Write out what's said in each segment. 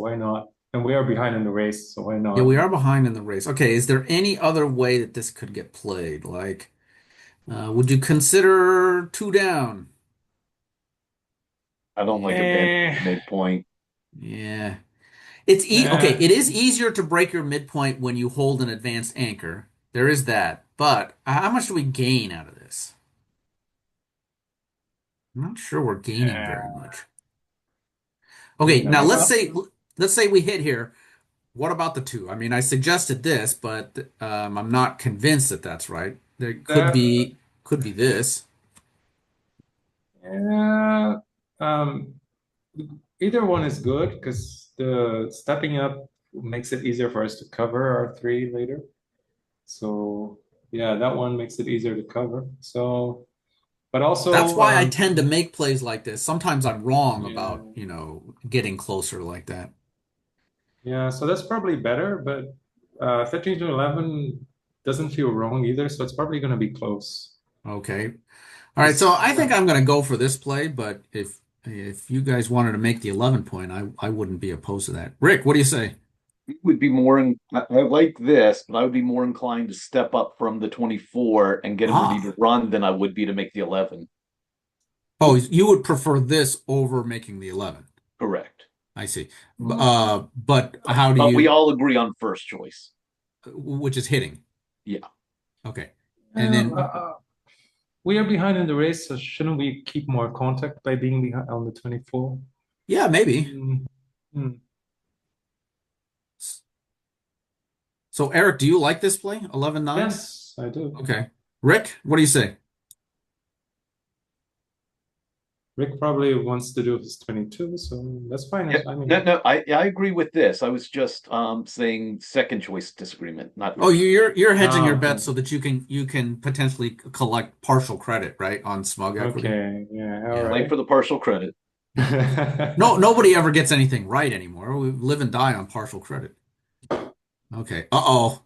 Why not? And we are behind in the race, so why not? Yeah, we are behind in the race. Okay, is there any other way that this could get played? Like, uh, would you consider two down? I don't like a Eh. bad midpoint. Yeah. It's e Yeah. okay, it is easier to break your midpoint when you hold an advanced anchor. There is that. But how much do we gain out of this? I'm not sure we're gaining very much. Okay, Yeah. now let's say let's say we hit here. What about the two? I mean, I suggested this, but um, I'm not convinced that that's right. There could That- be could be this. Yeah, um, either one is good because the stepping up makes it easier for us to cover our three later. So yeah, that one makes it easier to cover. So, but also That's why I um, tend to make plays like this. Sometimes I'm wrong about, Yeah. you know, getting closer like that. yeah, so that's probably better. But uh, 13 to 11 doesn't feel wrong either, so it's probably going to be close. Okay. All right, so I think I'm going to go for this play, but if if you guys wanted to make the 11 point, I I wouldn't be opposed to that. Rick, what do you say? You Would be more in, I, I like this, but I would be more inclined to step up from the twenty-four and get him Ah. ready to run than I would be to make the eleven. Oh, you would prefer this over making the 11. Correct. I see. B- Uh, but how do Mm-hmm. But you we all agree on first choice. which is hitting? Yeah. Okay. And then- Uh, uh, we are behind in the race, so shouldn't we keep more contact by being behind on the 24? Yeah, maybe. Mm, mm. So Eric, do you like this play? 11-9? Yes, I do. Okay. Rick, what do you say? Rick probably wants to do his 22, so that's fine. Yeah, I mean, No, no, I, I agree with this. I was just, um, saying second choice disagreement, not. Oh, you- you're you're hedging Oh, your okay. bets so that you can you can potentially c- collect partial credit, right, on smug equity. okay, yeah, all Yeah, Play right. for the partial credit. No, nobody ever gets anything right anymore. We live and die on partial credit. Okay. Uh-oh.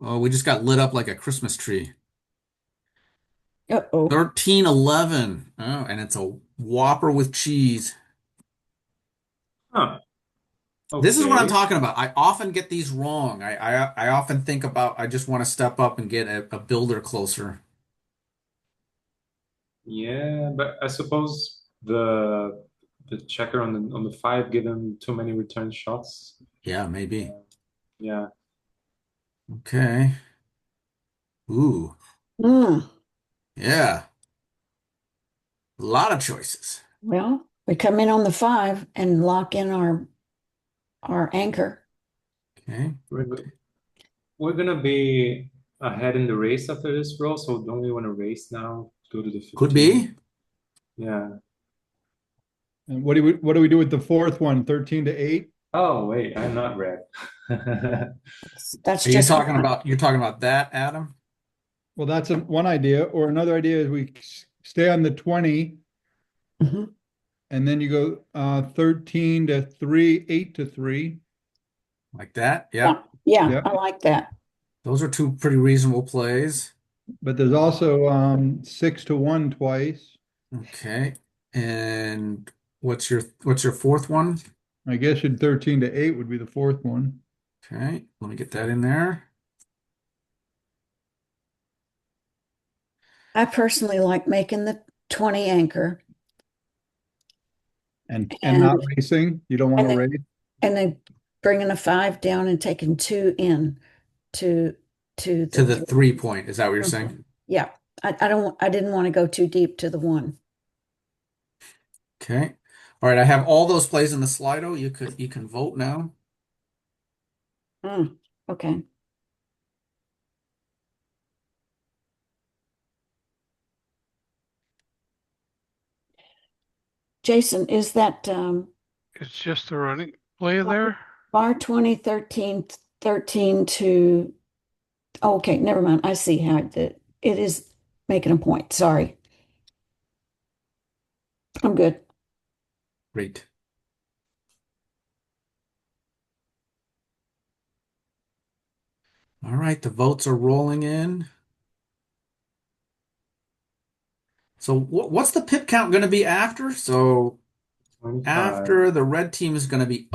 Oh, we just got lit up like a Christmas tree. Uh-oh. 1311. Oh, and it's a Whopper with cheese. Huh. This is what I'm Okay. talking about. I often get these wrong. I I, I often think about I just want to step up and get a, a builder closer. Yeah, but I suppose the the checker on the on the five gave him too many return shots. Yeah, maybe. Yeah. Okay. Ooh, Mm, yeah. A lot of choices. well, we come in on the five and lock in our our anchor. Okay. We're go- we're gonna be ahead in the race after this roll, so don't we want to race now? Go to the Could 15? be. Yeah. And what do we, what do we do with the fourth one? Thirteen to eight? Oh wait, I'm not red. Yeah, That's Are you just talking about you're talking about that, Adam? Well, that's a- one idea, or another idea is we s- stay on the twenty Mhm. and then you go, uh, thirteen to three, eight to three. Like that? Yeah. Yeah, Yep. I like that. Those are two pretty reasonable plays. But there's also, um, six to one twice. Okay. And what's your what's your fourth one? I guess you'd thirteen to eight would be the fourth one. Okay, let me get that in there. I personally like making the 20 anchor And, and not And- racing, you don't want to and race? and then bringing a five down and taking two in to to To the three. three point, is that what you're saying? Yeah, I, I don't I didn't want to go too deep to the one. Okay. All right, I have all those plays in the Slido. You could you can vote now. Mm, okay. Jason, is that um, It's just the running play Well, there. bar 20, 13, 13 to, oh, okay, never mind. I see how it did. It is making a point. Sorry. I'm good. Great. All right, the votes are rolling in. So what Uh, what's the pip count going to be after? So after the red team is going to be